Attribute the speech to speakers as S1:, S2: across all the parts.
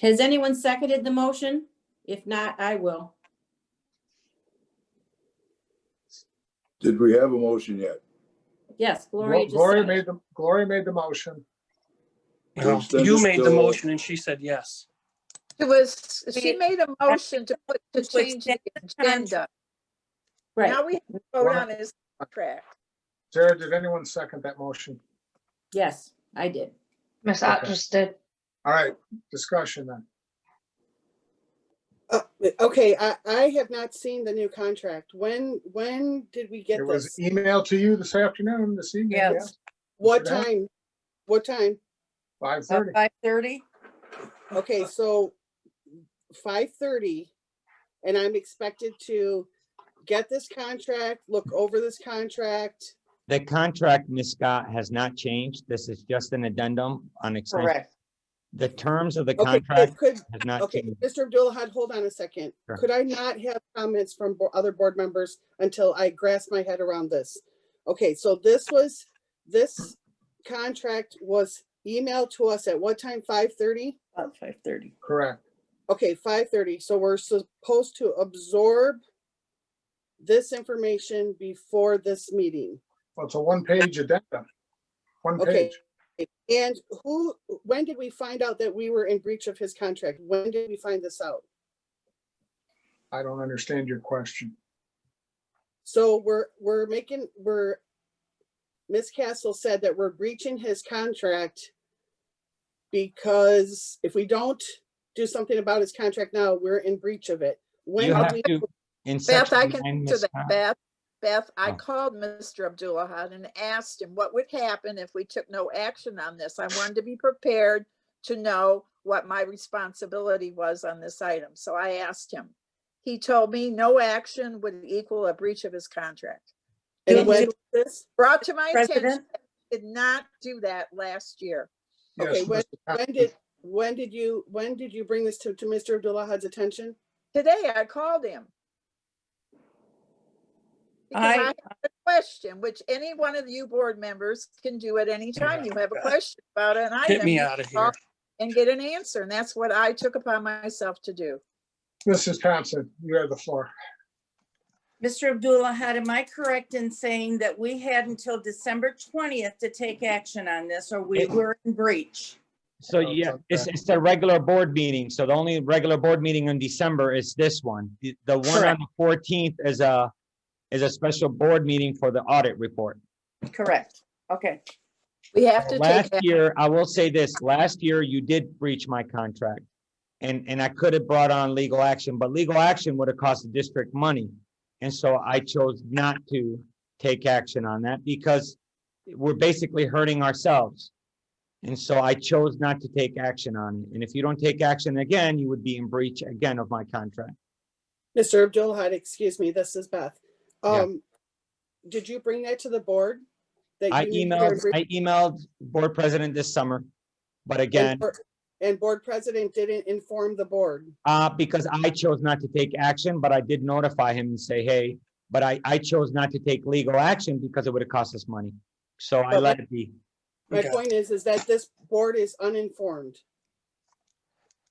S1: Has anyone seconded the motion? If not, I will.
S2: Did we have a motion yet?
S1: Yes, Gloria just
S3: Gloria
S1: seconded.
S3: made the, Gloria made the motion.
S2: Well,
S4: No,
S2: then
S4: You
S2: it's
S4: made the
S2: still-
S4: motion and she said yes.
S5: It was, she
S6: We-
S5: made a motion to put, to
S6: To
S5: change the
S6: extend the
S5: agenda.
S1: Right,
S5: Now we have to vote on his contract.
S3: Sarah, did anyone second that motion?
S1: yes, I did.
S7: Miss
S3: Okay.
S7: Otter's did.
S3: All right, discussion then.
S8: Uh, Okay, I, I have not seen the new contract. When, when did we get
S3: It was e-,
S8: this?
S3: emailed to you this afternoon, this evening, yeah,
S6: Yes,
S8: What
S3: today?
S8: time? What time?
S3: five thirty.
S8: Uh,
S6: five thirty.
S8: Okay, so five thirty, and I'm expected to get this contract, look over this contract.
S9: The contract, Ms. Scott, has not changed. This is just an addendum on extension.
S6: Correct.
S9: The terms of the
S8: Okay,
S9: contract
S8: Could,
S9: has not
S8: okay,
S9: changed.
S8: Mr. Abdullah, hold on a second.
S9: Sure.
S8: Could I not have comments from bo- other board members until I grasp my head around this? Okay, so this was, this contract was emailed to us at what time? Five thirty?
S6: About five
S8: uh,
S6: thirty.
S3: Correct.
S8: Okay, five thirty, so we're supposed to absorb this information before this meeting.
S3: Well, it's a one-page addendum. One
S8: Okay.
S3: page.
S8: And who, when did we find out that we were in breach of his contract? When did we find this out?
S3: I don't understand your question.
S8: So we're, we're making, we're, Ms. Castle said that we're breaching his contract because if we don't do something about his contract now, we're in breach of it. When
S9: You
S8: did
S9: have
S8: we,
S9: to, in
S5: Beth, I
S9: section nine,
S5: can to
S9: Ms.
S5: that,
S9: Scott,
S5: Beth. Beth, I
S9: Oh.
S5: called Mr. Abdullah and asked him what would happen if we took no action on this. I wanted to be prepared to know what my responsibility was on this item, so I asked him. He told me no action would equal a breach of his contract.
S8: and when was this?
S5: Brought to my attention,
S6: President?
S5: I did not do that last year.
S3: Yes,
S8: Okay, when,
S3: Mr.
S8: when did, when did you, when did you bring this to, to Mr. Abdullah's attention?
S5: Today, I called him. Because
S6: I-
S5: I have a question, which any one of you board members can do at any time. You have a question about an item.
S4: Get me
S5: you
S4: out of
S5: call
S4: here.
S5: And get an answer. And that's what I took upon myself to do.
S3: Mrs. Thompson, you have the floor.
S6: Mr. Abdullah, had, am I correct in saying that we had until December twentieth to take action on this or we
S9: It-
S6: were in breach?
S9: So
S3: Oh,
S9: yeah,
S3: okay.
S9: it's, it's the regular board meeting. So the only regular board meeting in December is this one. The the one on
S6: Correct.
S9: the fourteenth is a, is a special board meeting for the audit report.
S6: Correct. Okay.
S5: We have to take,
S9: Last
S5: action.
S9: year, I will say this, last year you did breach my contract. And, and I could have brought on legal action, but legal action would have cost the district money. And so I chose not to take action on that because we're basically hurting ourselves. And so I chose not to take action on it. And if you don't take action again, you would be in breach again of my contract.
S8: Mr. Abdullah, excuse me, this is Beth.
S9: Yeah.
S8: Um, did you bring that to the board? That
S9: I
S8: you knew you were
S9: emailed, I emailed board president this summer. But again,
S8: And board- And board president didn't inform the board.
S9: Uh, because I chose not to take action, but I did notify him and say, hey, but I, I chose not to take legal action because it would have cost us money. So I
S8: But-
S9: let it be.
S8: My
S4: Okay.
S8: point is, is that this board is uninformed.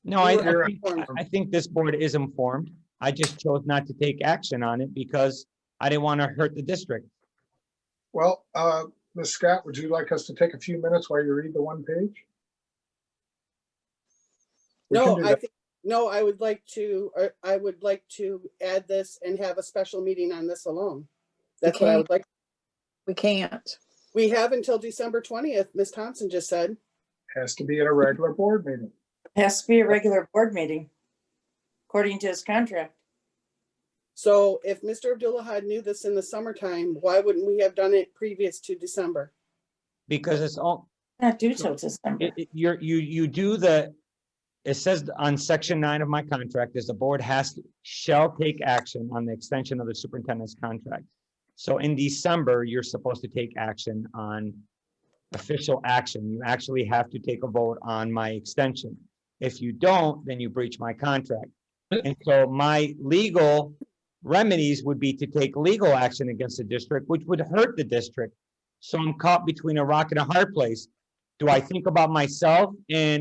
S9: No, I,
S8: You
S9: I
S3: were
S9: think-
S8: informed.
S9: I think this board is informed. I just chose not to take action on it because I didn't want to hurt the district.
S3: Well, uh, Ms. Scott, would you like us to take a few minutes while you read the one page? We can
S8: No,
S3: do
S8: I
S3: that.
S8: think, no, I would like to, or I would like to add this and have a special meeting on this alone. That's what I
S5: Okay.
S8: would like.
S5: we can't.
S8: We have until December twentieth, Ms. Thompson just said.
S3: Has to be at a regular board meeting.
S6: Has to be a regular board meeting, according to his contract.
S8: So if Mr. Abdullah had knew this in the summertime, why wouldn't we have done it previous to December?
S9: Because it's all,
S6: Not due till December.
S9: it, it- you're, you, you do the, it says on section nine of my contract is the board has, to shall take action on the extension of the superintendent's contract. So in December, you're supposed to take action on official action. You actually have to take a vote on my extension. If you don't, then you breach my contract. And so my legal remedies would be to take legal action against the district, which would hurt the district. So I'm caught between a rock and a hard place do I think about myself and